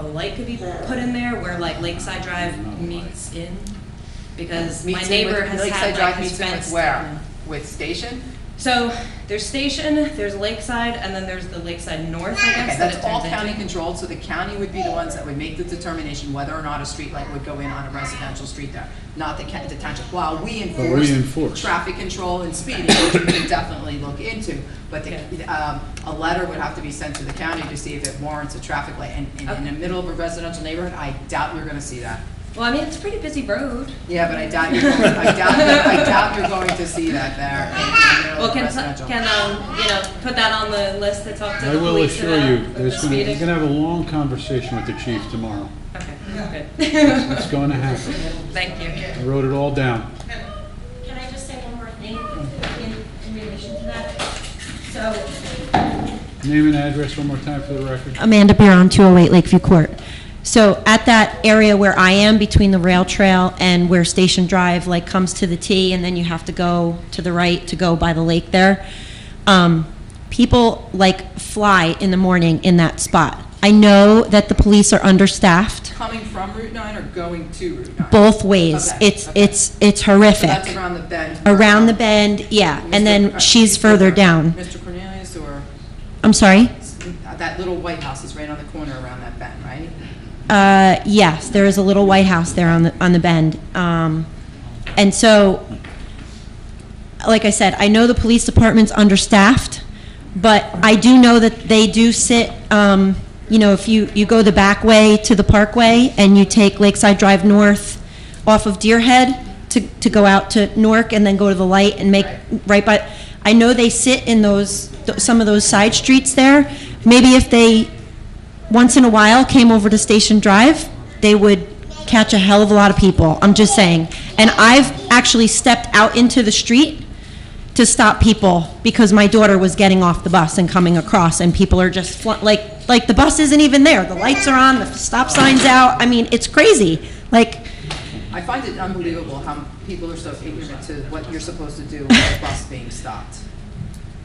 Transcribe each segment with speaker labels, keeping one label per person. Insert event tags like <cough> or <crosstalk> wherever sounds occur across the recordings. Speaker 1: light could be put in there where like Lakeside Drive meets in? Because my
Speaker 2: Meets in
Speaker 1: neighbor
Speaker 2: with-
Speaker 1: has
Speaker 2: Lakeside
Speaker 1: had
Speaker 2: Drive
Speaker 1: like
Speaker 2: meets
Speaker 1: these
Speaker 2: in
Speaker 1: fence.
Speaker 2: with where? With Station?
Speaker 1: So there's Station, there's Lakeside, and then there's the Lakeside North, I
Speaker 2: Okay,
Speaker 1: guess, that it
Speaker 2: that's all
Speaker 1: turns into.
Speaker 2: county controlled, so the county would be the ones that would make the determination whether or not a streetlight would go in on a residential street there, not the county, the township. While we
Speaker 3: But
Speaker 2: enforce.
Speaker 3: we enforce.
Speaker 2: Traffic control and speeding, which we can definitely look into, but the, um, a letter would have to be sent to the county to see if it warrants a traffic light. And, and in the middle of a residential neighborhood, I doubt you're gonna see that.
Speaker 1: Well, I mean, it's a pretty busy road.
Speaker 2: Yeah, but I doubt you're, going- I doubt, I doubt you're going to see that there in the middle
Speaker 1: Well,
Speaker 2: of
Speaker 1: can,
Speaker 2: residential.
Speaker 1: can, um, you know, put that on the list to talk to
Speaker 3: I
Speaker 1: the
Speaker 3: will
Speaker 1: police
Speaker 3: assure
Speaker 1: about.
Speaker 3: you, there's gonna,
Speaker 1: speeding?
Speaker 3: you're gonna have a long conversation with the chief tomorrow.
Speaker 1: Okay,
Speaker 3: It's
Speaker 1: good.
Speaker 3: gonna happen.
Speaker 1: <laughs> Thank you.
Speaker 3: I wrote it all down.
Speaker 4: Can I just say one more thing in, in relation to that? So,
Speaker 3: Name and address one more time for the record.
Speaker 4: Amanda Barron, 208 Lakeview Court. So at that area where I am, between the rail trail and where Station Drive like comes to the T, and then you have to go to the right to go by the lake there, um, people like fly in the morning in that spot. I know that the police are understaffed,
Speaker 2: Coming from Route 9 or going to Route 9?
Speaker 4: both ways.
Speaker 2: Okay,
Speaker 4: It's,
Speaker 2: okay.
Speaker 4: it's, it's
Speaker 2: So that's
Speaker 4: horrific.
Speaker 2: around the bend.
Speaker 4: Around the bend, yeah,
Speaker 2: Mr.
Speaker 4: and
Speaker 2: Cor-
Speaker 4: then she's
Speaker 2: Mr.
Speaker 4: further
Speaker 2: Cor-
Speaker 4: down.
Speaker 2: Mr. Cornelius or,
Speaker 4: I'm sorry?
Speaker 2: that little white house is right on the corner around that bend, right?
Speaker 4: Uh, yes, there is a little White House there on the, on the bend. Um, and so, like I said, I know the police department's understaffed, but I do know that they do sit, um, you know, if you, you go the back way to the parkway and you take Lakeside Drive North off of Deer Head to, to go out to Newark and then go to the light and make, right by, I know they sit in those, th- some of those side streets there. Maybe if they once in a while came over to Station Drive, they would catch a hell of a lot of people. I'm just saying. And I've actually stepped out into the street to stop people because my daughter was getting off the bus and coming across, and people are just fl- like, like the bus isn't even there. The lights are on, the stop sign's out. I mean, it's crazy. Like,
Speaker 2: I find it unbelievable how people are so ignorant to what you're supposed to do with a bus being stopped.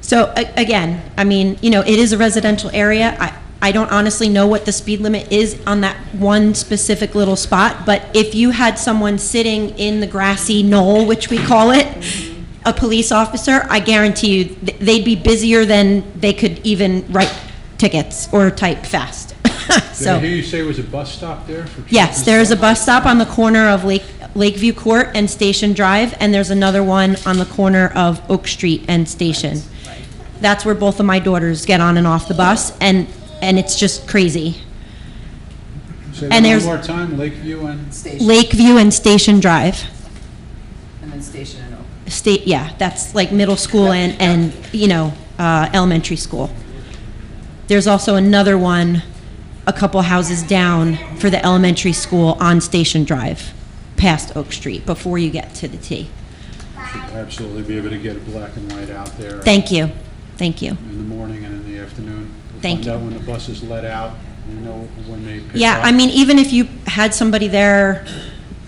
Speaker 4: So a- again, I mean, you know, it is a residential area. I, I don't honestly know what the speed limit is on that one specific little spot, but if you had someone sitting in the grassy knoll, which we call it, a police officer, I guarantee you, th- they'd be busier than they could even write tickets or type fast. <laughs>
Speaker 3: Did I
Speaker 4: So,
Speaker 3: hear you say it was a bus stop there for? chief
Speaker 4: yes,
Speaker 3: and
Speaker 4: there is a
Speaker 3: stuff?
Speaker 4: bus stop on the corner of Lake, Lakeview Court and Station Drive, and there's another one on the corner of Oak Street and Station that's where both of my daughters get on and off the bus and and it's just crazy
Speaker 3: Say
Speaker 4: and
Speaker 3: that
Speaker 4: there's-
Speaker 3: one more time, Lakeview and,
Speaker 2: Station,
Speaker 4: lakeview and station drive
Speaker 2: and then Station and Oak.
Speaker 4: state yeah that's like middle school and and you know uh, elementary school there's also another one a couple houses down for the elementary school on station drive past oak street before you get to the t
Speaker 3: should absolutely be able to get a black and white out there.
Speaker 4: thank you thank you
Speaker 3: In the morning and in the afternoon. We'll
Speaker 4: Thank you.
Speaker 3: Find out when the bus is let out, we know when they pick up.
Speaker 4: Yeah, I mean, even if you had somebody there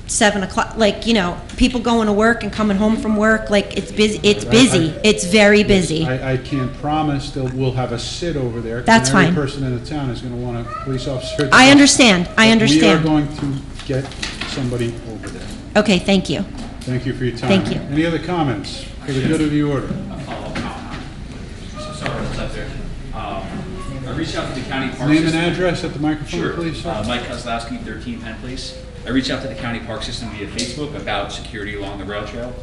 Speaker 4: seven o'clock, like, you know, people going to work and coming home from work, like, it's busy, it's busy, it's very busy.
Speaker 3: I, I can't promise that we'll have a sit over there. 'cause
Speaker 4: That's
Speaker 3: then
Speaker 4: fine.
Speaker 3: Every person in the town is gonna want a police officer. at the
Speaker 4: I
Speaker 3: bus.
Speaker 4: understand, I
Speaker 3: But We are
Speaker 4: understand.
Speaker 3: going to get somebody over there.
Speaker 4: Okay, thank you.
Speaker 3: Thank you for your time.
Speaker 4: Thank you.
Speaker 3: Any other comments for the good of the order?
Speaker 5: follow-up comment. So sorry, what's up there? Um, I reached out to the county park
Speaker 3: Name and
Speaker 5: system-
Speaker 3: address at the microphone,
Speaker 5: Sure.
Speaker 3: please,
Speaker 5: Uh,
Speaker 3: sir.
Speaker 5: Mike Kozlowski, 13 Penn Place. I reached out to the county park system via Facebook about security along the rail trail,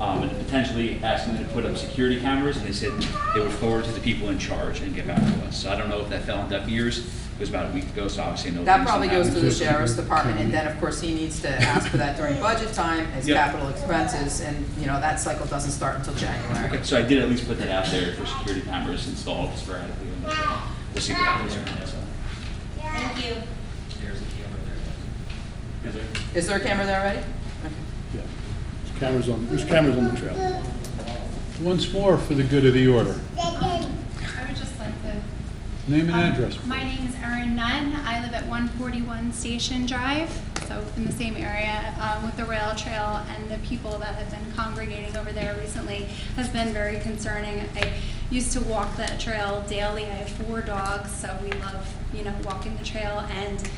Speaker 5: um, and potentially asking them to put up security cameras, and they said they would forward to the people in charge and get back to us. So I don't know if that fell on deaf ears. It was about a week ago, so obviously no.
Speaker 2: That
Speaker 5: things
Speaker 2: probably goes
Speaker 5: happened.
Speaker 2: to the sheriff's department, and then, of course, he needs to ask for that during budget time as
Speaker 5: Yep.
Speaker 2: capital expenses, and, you know, that cycle doesn't start until January.
Speaker 5: Okay, So I did at least put that out there for security cameras installed sporadically. on the trail. We'll see what happens. from there, so. Is there-
Speaker 2: Is there a camera there already? Okay.
Speaker 6: Yeah. There's cameras on, there's cameras on the trail.
Speaker 3: Once more for the good of the order.
Speaker 7: I would just like to.
Speaker 3: Name and
Speaker 7: um,
Speaker 3: address.
Speaker 7: My name is Erin Nunn. I live at 141 Station Drive, so in the same area uh, with the rail trail, and the people that have been congregating over there recently has been very concerning. I used to walk that trail daily. I have four dogs, so we love, you know, walking the trail, and